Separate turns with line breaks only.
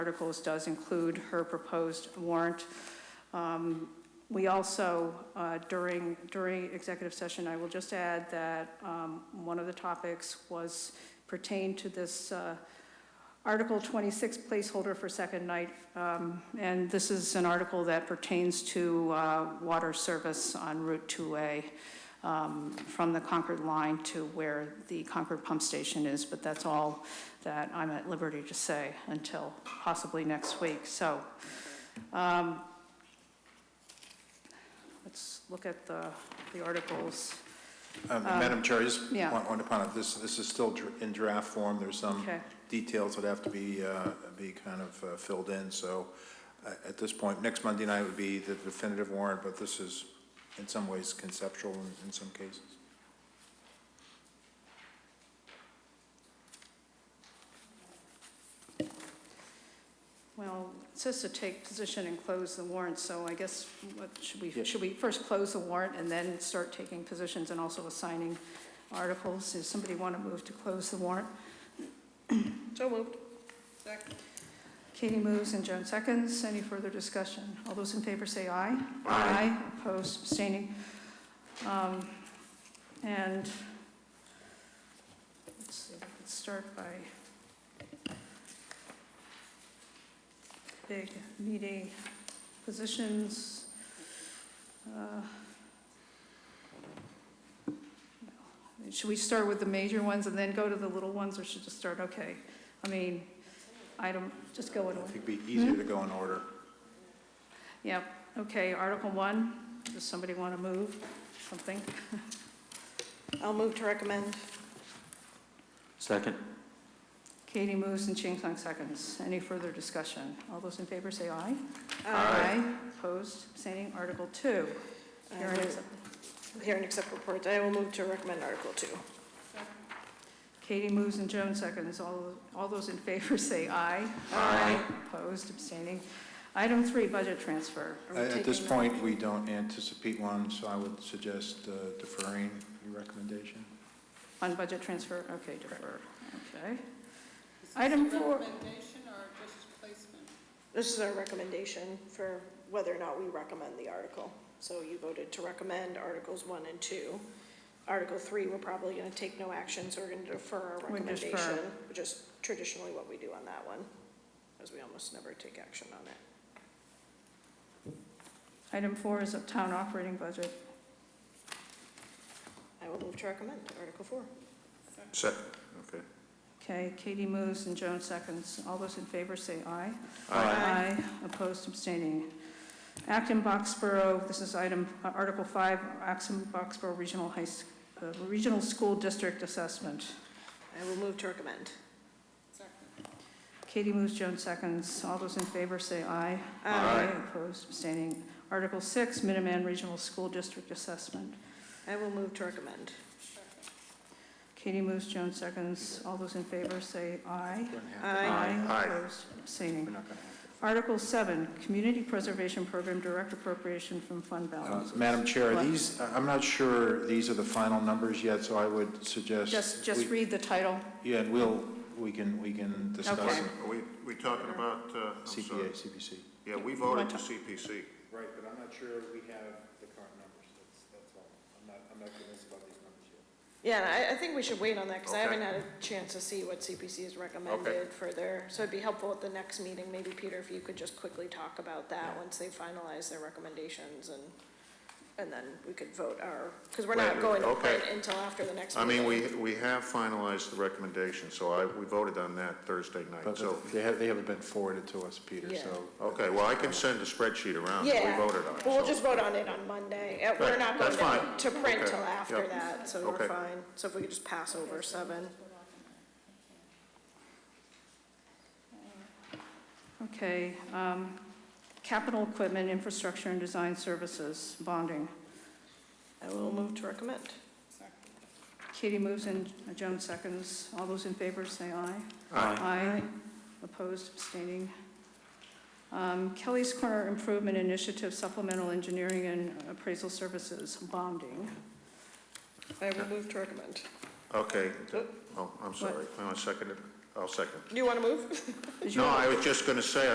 articles does include her proposed warrant. Um, We also, uh, during, during executive session, I will just add that um, one of the topics was pertained to this uh, Article 26 placeholder for second night. Um, And this is an article that pertains to uh, water service on Route 2A um, from the Concord line to where the Concord pump station is. But that's all that I'm at liberty to say until possibly next week. So um, let's look at the the articles.
Um, Madam Chair, I just
Uh, yeah.
want to point out, this, this is still dr- in draft form. There's some
Okay.
details that have to be, uh, be kind of uh, filled in. So uh, at this point, next Monday night would be the definitive warrant, but this is in some ways conceptual in, in some cases.
Well, it says to take position and close the warrant, so I guess, what, should we,
Yeah.
should we first close the warrant and then start taking positions and also assigning articles? Does somebody want to move to close the warrant?
So moved. Second.
Katie moves and Joan seconds. Any further discussion? All those in favor say aye. Aye. Opposed, abstaining. Um, And let's see, let's start by big meaty positions. Uh, Should we start with the major ones and then go to the little ones, or should just start, okay? I mean, item, just go in
I
order.
think it'd be easier to go in order.
Yep, okay, Article 1, does somebody want to move something?
I'll move to recommend.
Second.
Katie moves and Ching Sung seconds. Any further discussion? All those in favor say aye.
Aye.
Opposed, abstaining, Article 2.
I
Karen
will-
accept-
Hear and accept reports. I will move to recommend Article 2.
Katie moves and Joan seconds. All all those in favor say aye.
Aye.
Opposed, abstaining. Item 3, budget transfer.
Are we
At at this
taking-
point, we don't anticipate one, so I would suggest uh, deferring your recommendation.
On budget transfer, okay, defer, okay. Item 4.
This is our recommendation for whether or not we recommend the article. So you voted to recommend Articles 1 and 2. Article 3, we're probably going to take no action, so we're going to defer our
We defer.
recommendation. Which is traditionally what we do on that one, because we almost never take action on it.
Item 4 is uptown operating budget.
I will move to recommend Article 4.
Second, okay.
Okay, Katie moves and Joan seconds. All those in favor say aye.
Aye.
Opposed, abstaining. Acton Boxborough, this is item, uh, Article 5, Acton Boxborough Regional High, S- uh, Regional School District Assessment.
I will move to recommend.
Katie moves, Joan seconds. All those in favor say aye.
Aye.
Opposed, abstaining. Article 6, Minuteman Regional School District Assessment.
I will move to recommend.
Katie moves, Joan seconds. All those in favor say aye.
We're not
Aye.
Aye.
Opposed, abstaining.
gonna have to.
Article 7, Community Preservation Program Direct Appropriation from Fund
Uh,
Balance.
Madam Chair,
What?
these, I- I'm not sure these are the final numbers yet, so I would suggest.
Just, just
we-
read the title.
Yeah, and we'll, we can, we can discuss
Okay.
it.
Are we, we talking about, uh, I'm sorry.
CPA, CPC.
Yeah, we voted to CPC.
Right, but I'm not sure we have the current numbers, that's, that's all. I'm not, I'm not convinced about these numbers yet.
Yeah, and I, I think we should wait on that, because I haven't
Okay.
had a chance to see what CPC has recommended for their, so it'd be helpful at the next meeting, maybe, Peter, if you could just quickly talk about that, once they finalize their recommendations, and, and then we could vote our, because we're not
Later,
going to
okay.
print until after the next
I
meeting.
mean, we, we have finalized the recommendation, so I, we voted on that Thursday night, so.
But they have, they haven't been forwarded to us, Peter,
Yeah.
so.
Okay, well, I can send a spreadsheet around, that
Yeah,
we voted on.
Well, we'll
so-
just vote on it on Monday, Uh, we're
Right,
not going
that's
to,
fine.
to print
Okay,
till after
yep.
that, so we're
Okay.
fine, so if we could just pass over seven.
Okay, um, Capital Equipment Infrastructure and Design Services, bonding.
I will move to recommend.
Katie moves and Joan seconds. All those in favor say aye.
Aye.
Aye. Opposed, abstaining. Um, Kelly's Corner Improvement Initiative Supplemental Engineering and Appraisal Services, bonding.
I will move to recommend.
Okay,
Oh.
oh, I'm sorry, I want to second it. I'll second.
Do you want to move?
Did you
No,
have a-
I was just going to say,